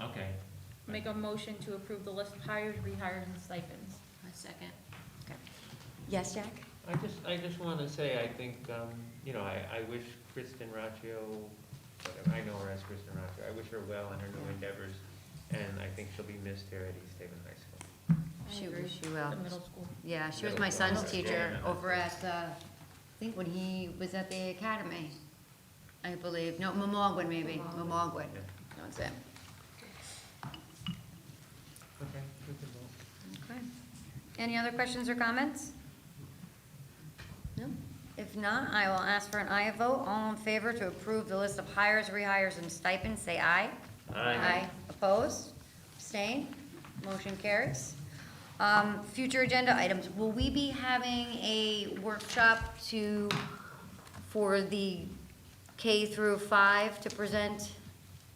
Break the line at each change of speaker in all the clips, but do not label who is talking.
Okay.
Make a motion to approve the list of hires, rehires, and stipends.
A second.
Yes, Jack?
I just, I just want to say, I think, um, you know, I, I wish Kristen Raccio, whatever, I know her as Kristen Raccio, I wish her well in her new endeavors, and I think she'll be missed here at East Haven High School.
I
She,
agree.
she
The
will.
middle school.
Yeah, she was
Middle
my
school,
son's
high school,
teacher
yeah.
over at, uh, I think when he was at the academy, I believe. No, Memorgwood maybe, Memorgwood.
Yeah.
That's it.
Okay, we can vote.
Okay. Any other questions or comments? No? If not, I will ask for an aye vote. All in favor to approve the list of hires, rehires, and stipends, say aye.
Aye.
Opposed? Abstained? Motion carries. Um, Future agenda items, will we be having a workshop to, for the K through five to present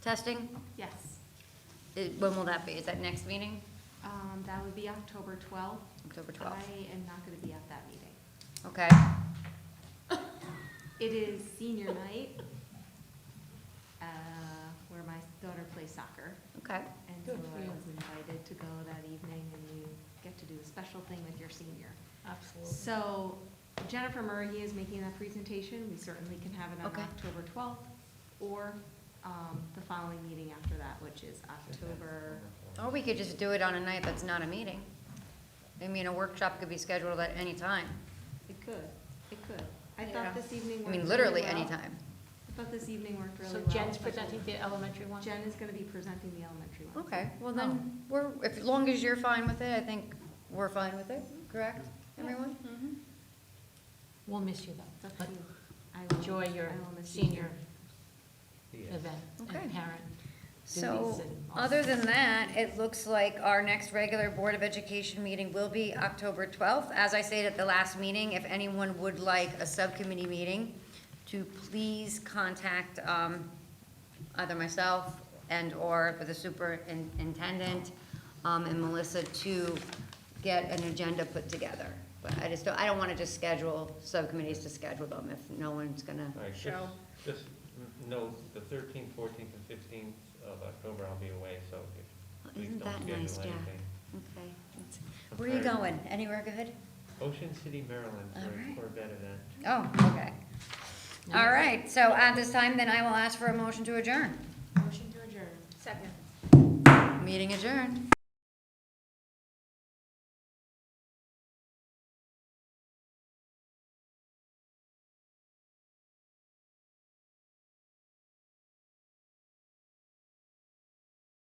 testing?
Yes,
Eh, When will that be? Is that next meeting?
um, that would be October twelfth.
October 12th?
I am not gonna be at that meeting.
Okay.
It is senior night, uh, where my daughter plays soccer.
Okay.
And so I was invited to go that evening and you get to do a special thing with your senior.
Absolutely.
So Jennifer Murray is making that presentation. We certainly can have it on
Okay.
October twelfth or, um, the following meeting after that, which is October
Or Oh, we could just do it on a night that's not a meeting. I mean, a workshop could be scheduled at any time.
It could, it could. I
Yeah.
thought this evening
I
worked really well.
mean, literally any time.
I thought this evening worked really
So
well.
Jen's presenting the elementary one?
Jen is gonna be presenting the elementary one.
Okay, well then, we're, if, as long as you're fine with it, I think we're fine with it, correct, everyone?
We'll miss you though.
It's up to you. I will-
Enjoy your
I will miss you.
senior
Yes.
event
Okay.
and parent.
So,
duties and all
other
that.
than that, it looks like our next regular Board of Education meeting will be October 12th. As I said at the last meeting, if anyone would like a subcommittee meeting, to please contact um, either myself and/or the superintendent um, and Melissa to get an agenda put together. But I just, don't- I don't want to just schedule subcommittees to schedule them if no one's gonna,
All right, just-
Cheryl.
Just n- note, the thirteenth, fourteenth, and fifteenth of October, I'll be away, so if, please
Isn't
don't
that
schedule
nice,
anything.
Jack? okay. Where are you
Okay.
going? Anywhere good?
Ocean City, Maryland,
All
for a
right.
Corvette event.
Oh, okay. All right, so at this time, then I will ask for a motion to adjourn.
Second.
Meeting adjourned.